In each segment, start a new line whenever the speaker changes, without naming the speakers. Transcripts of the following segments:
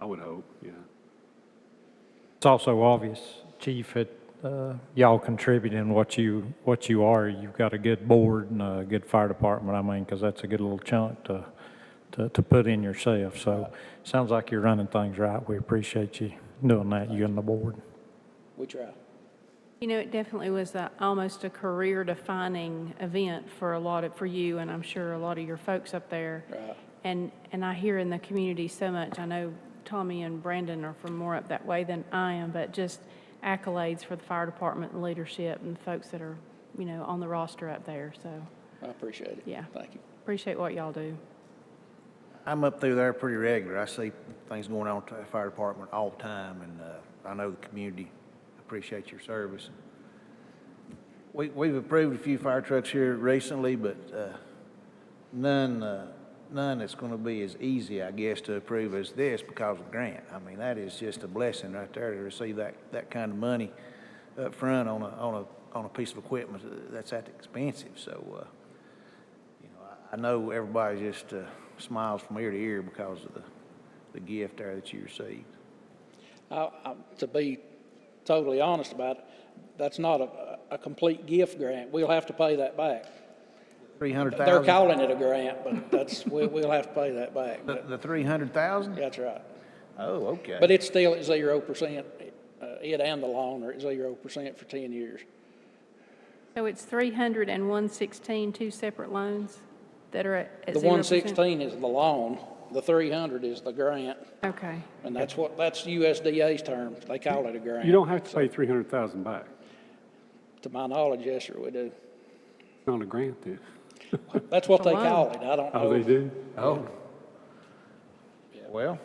I would hope, yeah.
It's also obvious, Chief, that uh, y'all contributing what you, what you are. You've got a good board and a good fire department, I mean, because that's a good little chunk to, to, to put in yourself. So sounds like you're running things right. We appreciate you doing that, you and the board.
We try.
You know, it definitely was a, almost a career-defining event for a lot of, for you, and I'm sure a lot of your folks up there.
Right.
And, and I hear in the community so much, I know Tommy and Brandon are from more up that way than I am, but just accolades for the fire department and leadership and the folks that are, you know, on the roster up there, so
I appreciate it.
Yeah.
Thank you.
appreciate what y'all do.
I'm up through there pretty regular. I see things going on at the fire department all the time, and uh, I know the community appreciates your service. We, we've approved a few fire trucks here recently, but uh, none, uh, none that's going to be as easy, I guess, to approve as this because of grant. I mean, that is just a blessing right there to receive that, that kind of money up front on a, on a, on a piece of equipment that's that expensive. So, uh, you know, I, I know everybody just, uh, smiles from ear to ear because of the, the gift there that you received.
I, I, to be totally honest about it, that's not a, a complete gift grant. We'll have to pay that back.
Three hundred
They're
thousand,
calling it a grant, but that's, we, we'll have to pay that back.
the,
But
the three hundred thousand?
that's right.
Oh, okay.
But it's still at zero percent, uh, it and the loan are at zero percent for ten years.
So it's 30116, two separate loans that are at at
The
0%?
one sixteen is the loan, the three hundred is the grant,
Okay.
and that's what, that's USDA's term. They call it a grant.
You don't have to pay three hundred thousand back.
To my knowledge, yes, sir, we do.
It's not a grant, then.
That's what they
Wow.
call it. I don't know.
Oh, they do?
Oh. Well,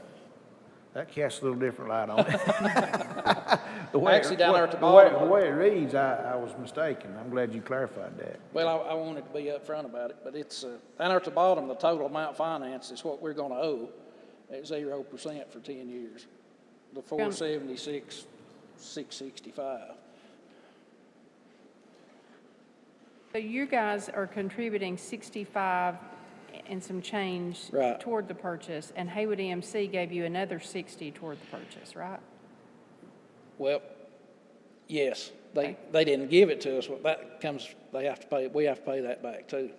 that casts a little different light on it. The way it-
Actually, down there at the
way-
bottom.
The way it reads, I, I was mistaken. I'm glad you clarified that.
Well, I, I wanted to be upfront about it, but it's, uh, down there at the bottom, the total amount financed is what we're gonna owe at zero percent for ten years. The four seventy-six, six sixty-five.
So you guys are contributing 65 and some change
Right.
toward the purchase, and Haywood EMC gave you another 60 toward the purchase, right?
Well, yes, they, they didn't give it to us, but that comes, they have to pay, we have to pay that back too.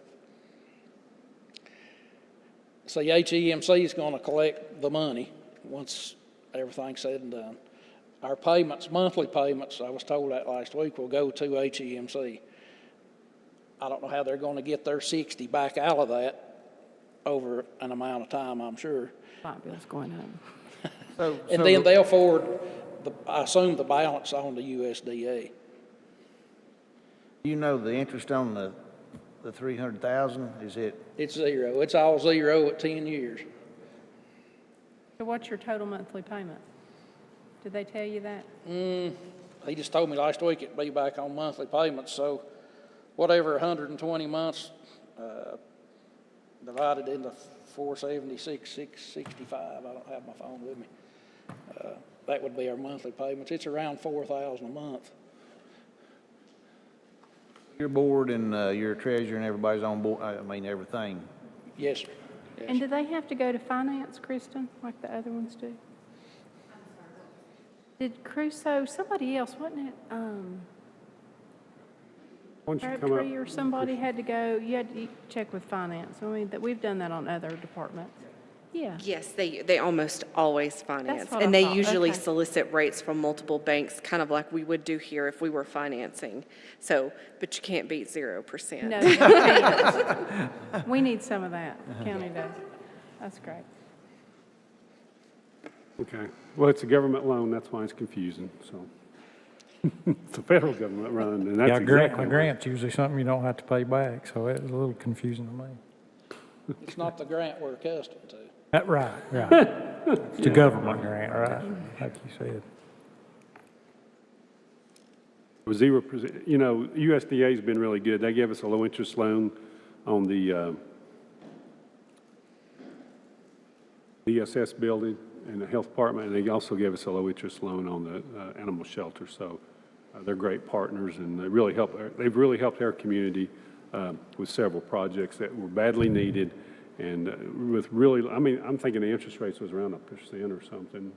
See, HEMC E is gonna collect the money once everything's said and done. Our payments, monthly payments, I was told that last week, will go to HEMC. I don't know how they're gonna get their sixty back out of that over an amount of time, I'm sure.
Light bill's going up.
So,
And
so
then they'll forward, the- I assume, the balance on to USDA.
you know the interest on the, the three hundred thousand, is it,
It's zero. It's all zero at 10 years.
So what's your total monthly payment? Did they tell you that?
He just told me last week it'd be back on monthly payments, so whatever 120 months uh, divided into 476, 665, I don't have my phone with me. Uh, That would be our monthly payments. It's around 4,000 a month.
your board and, uh, your treasurer and everybody's on board, I mean, everything.
Yes, sir. Yes,
And do they have to go to finance, Kristen, like the other ones do? Did Crusoe, somebody else, wasn't it, um,
Why don't you come
Crabtree
up?
or somebody had to go, you had to check with finance. I mean, that, we've done that on other departments. Yeah.
Yes, they, they almost always finance.
what I
And they
thought,
usually
okay.
solicit rates from multiple banks, kind of like we would do here if we were financing. So, but you can't beat 0%.
No, they can't. we need some of that, county does. That's great.
Okay. Well, it's a government loan, that's why it's confusing, so. It's the federal government running, and
Yeah,
that's
grant,
exactly.
the
why.
grant's usually something you don't have to pay back, so it was a little confusing to me.
It's not the grant we're accustomed to.
Uh, Right, right. It's a government grant, right, like you said.
It was Zero percent, you know, USDA's been really good. They gave us a low-interest loan on the uh, DSS E building and the health department, and they also gave us a low-interest loan on the uh, animal shelter. So uh, they're great partners, and they really uh, help, they've really helped our community um, with several projects that were badly needed And uh, with really, I mean, I'm thinking the interest rates was around a percent or something,